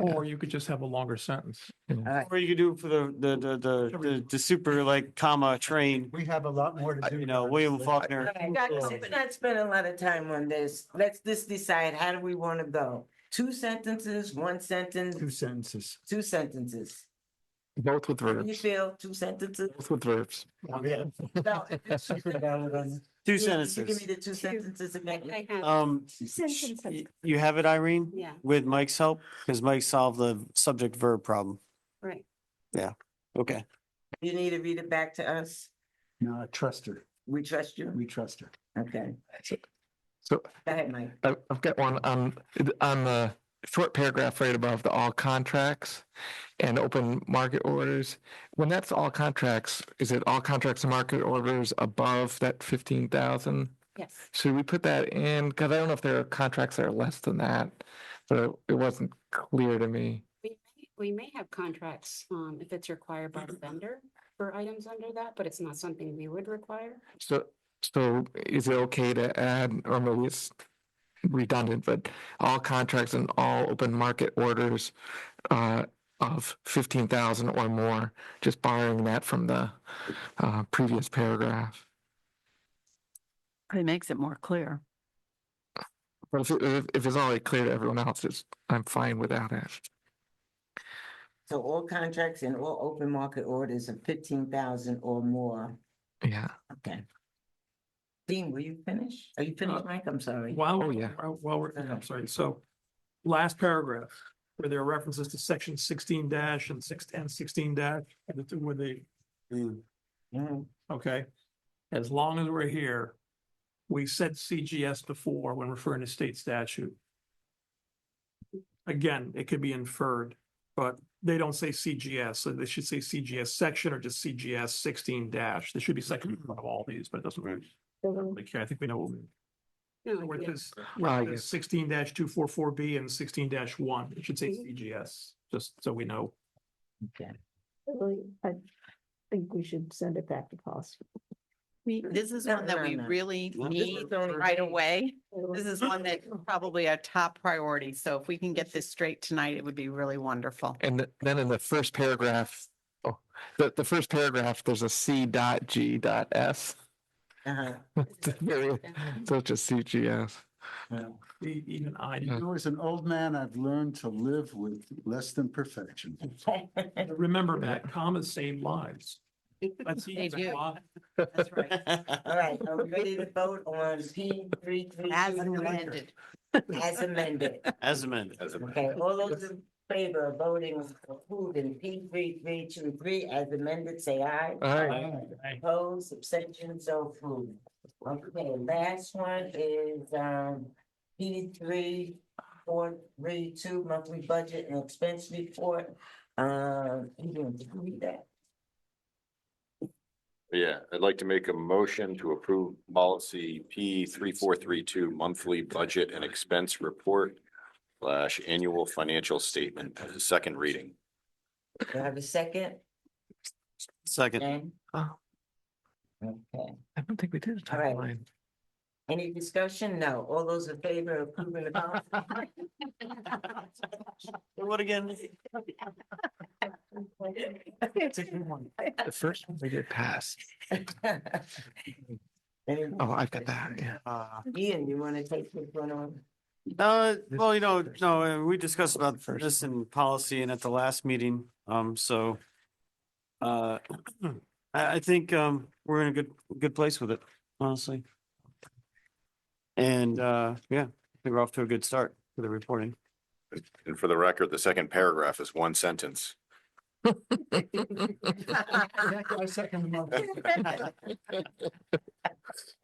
Or you could just have a longer sentence. Or you could do it for the, the, the, the, the, the super like comma train, We have a lot more to do. you know, William Faulkner. We're Not we're not spending a lot of time on this. Let's just decide, how do we want to go? Two sentences, one Two sentence, sentences. two sentences. Both with You verbs, feel two sentences? both with verbs. Oh, yeah. No. Two Would you Give sentences. me the two sentences again. I have Um, two sentences. y- you have it, Irene, Yeah, with Mike's help, because Mike solved the subject verb problem. right. Okay. You need to read it back to us. No, I trust her. We trust you. We trust her. Okay. So Go ahead, Mike. I- I've got one on, on the short paragraph right above the all contracts and open market orders. When that's all contracts, is it all contracts and market orders above that fifteen thousand? Yes. Should we put that in? Because I don't know if there are contracts that are less than that, but it- it wasn't clear to me. We, may- we may have contracts, um, if it's required by the Mm-hmm. vendor for items under that, but it's not something we would require. So, so is it okay to add, or maybe it's redundant, but all contracts and all open market orders uh, of fifteen thousand or more, just borrowing that from the uh, previous paragraph? It makes it more clear. But if, it- if if it's already clear to everyone else, it's, I'm fine without it. So all contracts and all open market orders of fifteen thousand or more. Yeah. Okay. Dean, will you finish? Are you finished, Mike? I'm sorry. Oh, Wow. we're- yeah. While while we're, Okay. I'm sorry, so last paragraph, where there are references to section sixteen dash and six and sixteen dash, the two where they, Mm. Mhm. okay? As long as we're here, we said CGS before when referring to state statute. Again, it could be inferred, but they don't say CGS, so they should say CGS section or just CGS sixteen dash. There should be section Mm. in front of all these, but it doesn't really, really care. I think we know what we No, where yeah. this, I where guess. this sixteen two four four B and sixteen one, it should say Mm-hmm. CGS, just so we know. Okay. I think we should send it back to policy. We, this is No, one that no, we no. really No. This need is only- right away. This is one that probably our top priority. So if we can get this straight tonight, it would be really wonderful. And th- then in the first paragraph, oh, the, the first paragraph, there's a C dot G dot S. Uh-huh. It's very- Such a CGS. Yeah. E- Even I, Yeah. You know, as an old man, I've learned to live with less than perfection. remember that commas save lives. That's They that's do. why- That's right. All right, are we ready to vote on P three three? As amended. As amended. As amended. Okay, all those in favor of voting approving P three three two three as amended, say aye. Aye. Opposed, abstentions, so approved. Okay, last one is, um, P three four three two monthly budget and expense report. Uh, you can read that. Yeah, I'd like to make a motion to approve policy P three, four, three, two, monthly budget and expense report slash annual financial statement as a second reading. Do I have a second? Second. Jen? Oh. Okay, I don't think we did a All right. timeline. any discussion? No, all those in favor of approving the policy? What again? It's a good one. The first one we did pass. Any- Oh, I've got that, yeah. Uh, Ian, you wanna take this one on? Uh, well, you know, no, uh, we discussed about First. this in policy and at the last meeting, um, so. Uh, I, I think, um, we're in a good, good place with it, honestly. And, uh, yeah, I think we're off to a good start for the reporting. And for the record, the second paragraph is one sentence. I second the motion.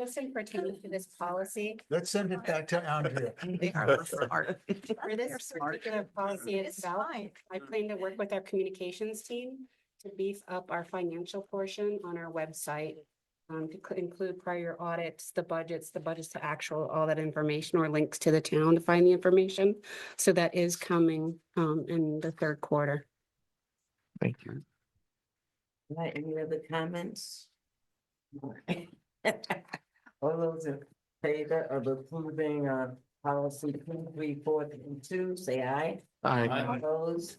Just in pertaining to this policy, Let's send it back to Andrea. They are smart. for They're this smart. particular policy It's itself, fine. I plan to work with our communications team to beef up our financial portion on our website. Um, to cl- include prior audits, the budgets, the budgets to actual, all that information or links to the town to find the information. So that is coming, um, in the third quarter. Thank you. Right, any other comments? All those in favor of approving, uh, policy three, four, and two, say aye. I. Aye. Opposed,